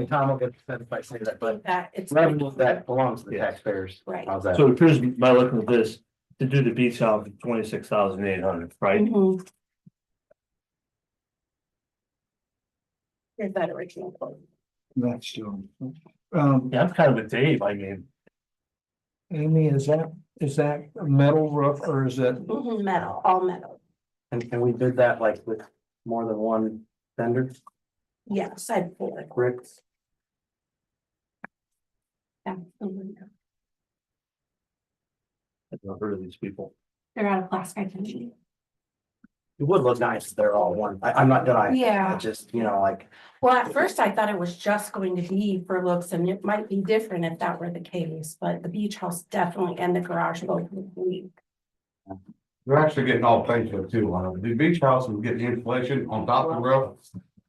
And Tom will get offended if I say that, but That it's. revenue that belongs to the taxpayers. Right. How's that? So here's my look at this, to do the beach house, twenty-six thousand eight hundred, right? Mhm. Here's that original quote. That's true. Um, Yeah, I'm kind of with Dave, I mean, Amy, is that, is that a metal roof or is that, Mhm, metal, all metal. And can we bid that like with more than one vendor, Yes, I bought it. bricks? Yeah, mhm. I've never heard of these people. They're out of plastic. I think. It would look nice if they're all one. I, I'm not denying. it. I Yeah, just, you know, like, well, at first I thought it was just going to be for looks and it might be different if that were the case, but the beach house definitely and the garage both would be. They're actually getting all painted up too. Uh, The beach house is getting insulation on top of the roof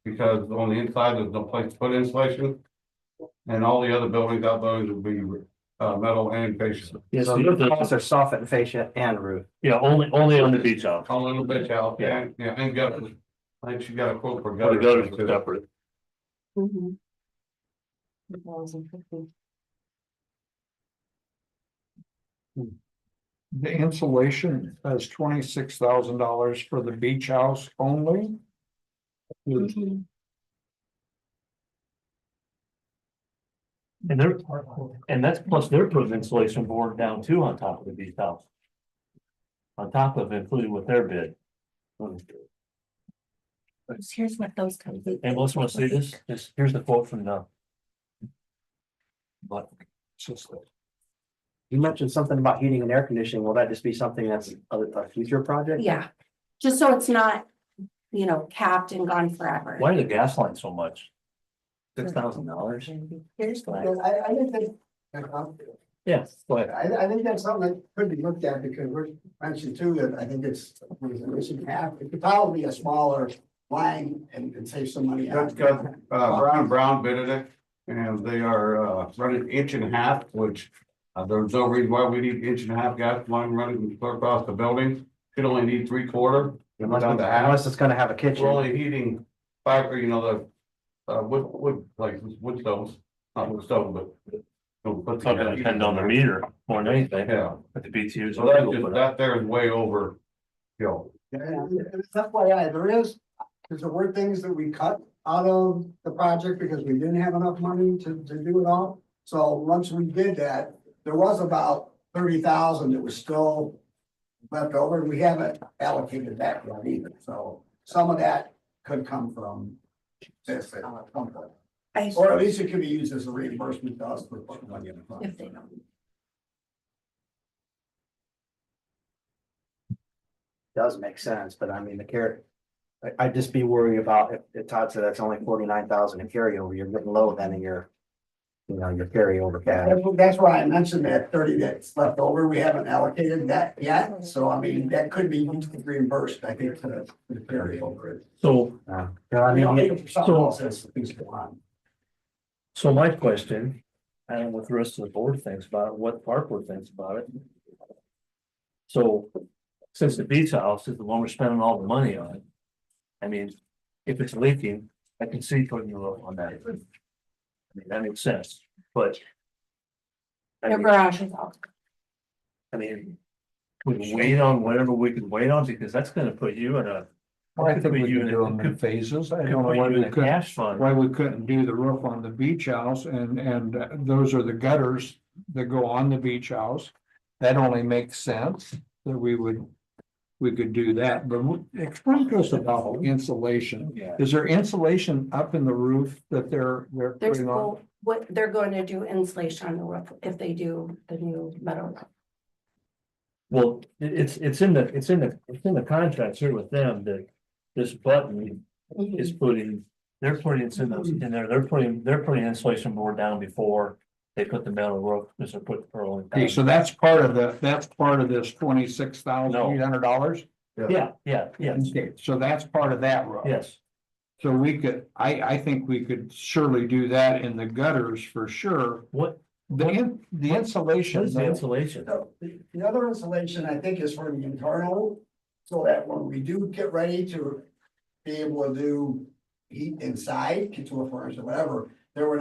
because on the inside, there's no place to put insulation. And all the other buildings, out buildings will be uh metal and fascia. Yes, so the costs are soffit, fascia and roof. yeah, only, only on the beach house. All little bitch out, yeah, yeah, and gutters. I think she got a quote for Or the gutters gutters. are separate. Mhm. 1,050. the insulation has twenty-six thousand dollars for the beach house only? With Mhm. And they're, and that's plus they're putting insulation board down too on top of the beach house. On top of it, including with their bid. Here's what those come. And let's want to see this, this, here's the quote from the. But, You mentioned something about heating and air conditioning. Will that just be something that's a, a future project? Yeah, just so it's not, you know, capped and gone forever. why are the gas lines so much? Six thousand dollars? Here's I, what, I think that, Yes, but. I, I think that's something that could be looked at because we're mentioned too, that I think it's, we should- we should have, it could probably be a smaller line and, and save some money. That's good. Uh, Brown, Brown bidded it and they are uh running inch and a half, which uh, there's no reason why we need inch and a half gas line running clear across the building. Could only need three quarter. Unless, unless it's gonna have a We're kitchen. only heating five, or you know, the, uh, wood, wood, like wood stoves, not wood stove, but. don't put It's all gonna depend on the meter more than anything, Yeah, but the BTUs. so that's just, that there is way over, you know, And and it's FYI, there is, because there were things that we cut out of the project because we didn't have enough money to, to do it all. So once we did that, there was about thirty thousand that was still left over, and we haven't allocated that yet either, so some of that could come from this at some point. I, Or at least it could be used as a reimbursement to us for putting money in the fund. if they don't. does make sense, but I mean, the carrot. I, I'd just be worried about if, if Todd said that's only forty-nine thousand in carryover, you're getting low then in your. You know, your carryover cash. That's- That's why I mentioned that thirty that's left over, we haven't allocated that yet, so I mean, that could be reimbursed, I think, to the- to the carryover. So, Uh, you know, I mean, it- Something else that's things go on. so my question, I don't know what the rest of the board thinks about it, what park board thinks about it. So, since the beach house is the one we're spending all the money on. I mean, if it's leaking, I can see putting a little on that. I mean, that makes sense, but. I Their mean- garage is all, I mean. We can wait on whatever we can wait on, because that's gonna put you in a. I think we Could put you could in a- do them in could- phases. I could don't know put why you in we a couldn't, Cash fund, why we couldn't do the roof on the beach house and, and uh, those are the gutters that go on the beach house. That only makes sense that we would, we could do that, but w- explain to us about insulation. yeah, Is there insulation up in the roof that they're, they're there's, putting on? no- what, they're going to do insulation on the roof if they do the new metal roof. well, it- it's, it's in the, it's in the, it's in the contracts here with them that. This button is putting, they're putting, it's in those, in there, they're putting, they're putting insulation board down before. They put the metal roof, because they're putting pearl in. Okay, so that's part of the, that's part of this twenty-six thousand eight hundred dollars? Yeah, yeah, yeah, So that's part of that roof. yes, So we could, I, I think we could surely do that in the gutters for sure. what, The, in- the insulation, what's the insulation? So, The, the other insulation, I think, is for the internal, so that when we do get ready to be able to do heat inside, get to a furnace or whatever, there would